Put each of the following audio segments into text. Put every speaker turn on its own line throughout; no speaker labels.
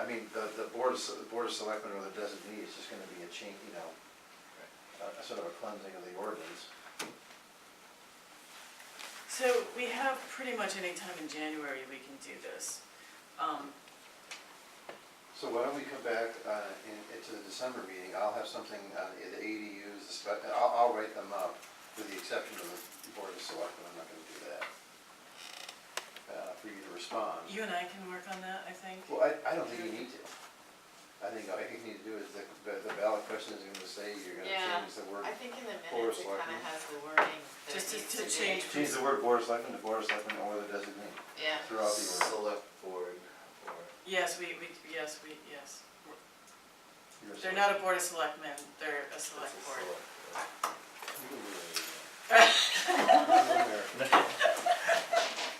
I mean, the, the board of, Se- the board of selectmen or the designee is just gonna be a change, you know, a- a sort of a cleansing of the ordinance.
So we have pretty much any time in January we can do this. Um,
So why don't we come back, uh, in, into the December meeting, I'll have something on the ADUs, the spec, I'll, I'll write them up, with the exception of the board of selectmen, I'm not gonna do that. Uh, for you to respond.
You and I can work on that, I think.
Well, I, I don't think you need to. I think all you need to do is, the, the ballot question is gonna say you're gonna
Yeah,
change the word.
I think in the
Or
minutes it kinda
selectmen.
has the wording that
Just
it
to- to
needs to be.
change-
Change the word board of selectmen to board of selectmen or the designee
Yeah,
throughout the order.
Select board or.
Yes, we, we, yes, we, yes.
You're a
They're
select-
not a board of selectmen, they're a select
it's a
board.
select
You can do that.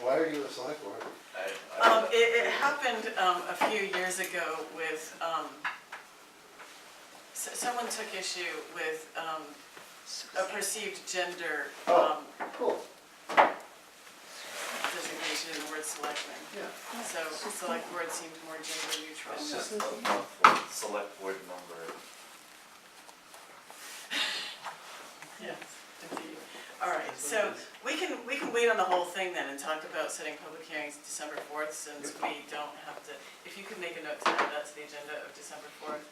Why are you a select board?
board. I- I-
Um, it, it happened, um, a few years ago with, um, s- someone took issue with, um, a perceived gender,
Oh.
um,
Cool.
designation in the word selectmen.
Yeah.
So select board seemed more gender neutral.
It's just a mouthful. Select board number.
Yes, indeed. All right, so we can, we can wait on the whole thing then and talk about setting public hearings December fourth, since we don't have to, if you could make a note to add that to the agenda of December fourth,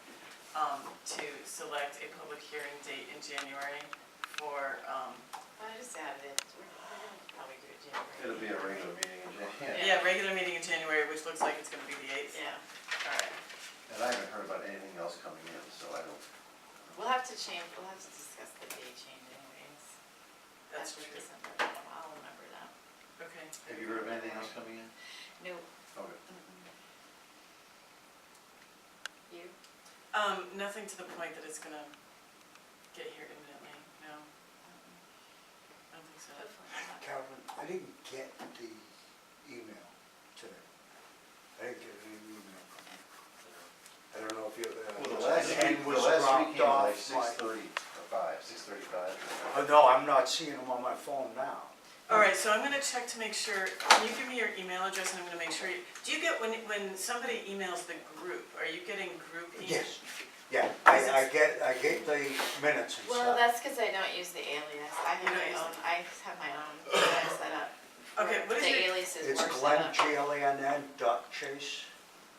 um, to select a public hearing date in January for, um,
I just added it, we're, we're gonna probably do it January.
It'll be a regular meeting in January.
yeah, regular meeting in January, which looks like it's gonna be the eighth.
Yeah,
All right,
And I haven't heard about anything else coming in, so I don't,
we'll have to change, we'll have to discuss the date change anyways.
that's
After
true.
December, I'll remember that.
Okay.
have you heard of anything else coming in?
No.
Okay.
You?
Um, nothing to the point that it's gonna get here imminently, no, I
Mm-mm.
don't think so.
Hopefully not.
Calvin, I didn't get the email today. I didn't get any email from you. I don't know if you. uh,
Well, the last
and
week, the
was
last week
dropped
came at like
off
six
my-
thirty or five, six thirty-five.
Oh, no, I'm not seeing them on my phone now.
All right, so I'm gonna check to make sure, can you give me your email address and I'm gonna make sure, you- do you get, when, when somebody emails the group, are you getting group emails?
Yes, yeah, I, I get, I get the minutes and
Well,
stuff.
that's cause I don't use the alias,
You
I have
don't
my
use
own,
it.
I have my own, that I set up.
Okay, what is
The
your-
alias is
It's
worse
Glenn,
than
G L A N N dot Chase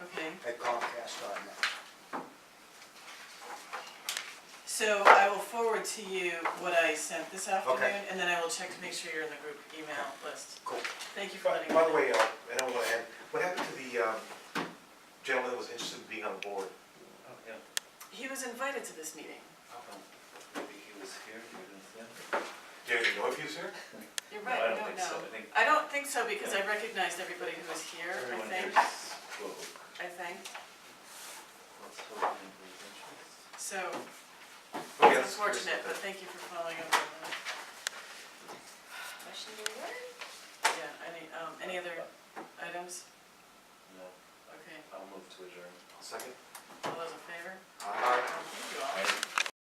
Okay,
at Comcast dot net.
so I will forward to you what I sent this afternoon, and then I will check to make sure you're in the group email list.
Cool.
Thank you for
By
letting me know.
by the way, uh, I don't want to add, what happened to the um, gentleman that was interested in being on the board?
Oh, yeah.
He was invited to this meeting.
How come? Maybe he was here, you didn't see him?
Do you even know if he was here?
You're
No,
right, I
I don't
don't
think so.
know.
I think-
I don't think so, because I recognized everybody who was here, I
Everyone here
think,
spoke.
I think,
Let's hope he didn't lose interest.
so,
Okay, that's-
it's unfortunate, but thank you for following up on that.
a question to the word.
Yeah, any, um, any other items?
No,
Okay,
I'll move to adjourn.
Second?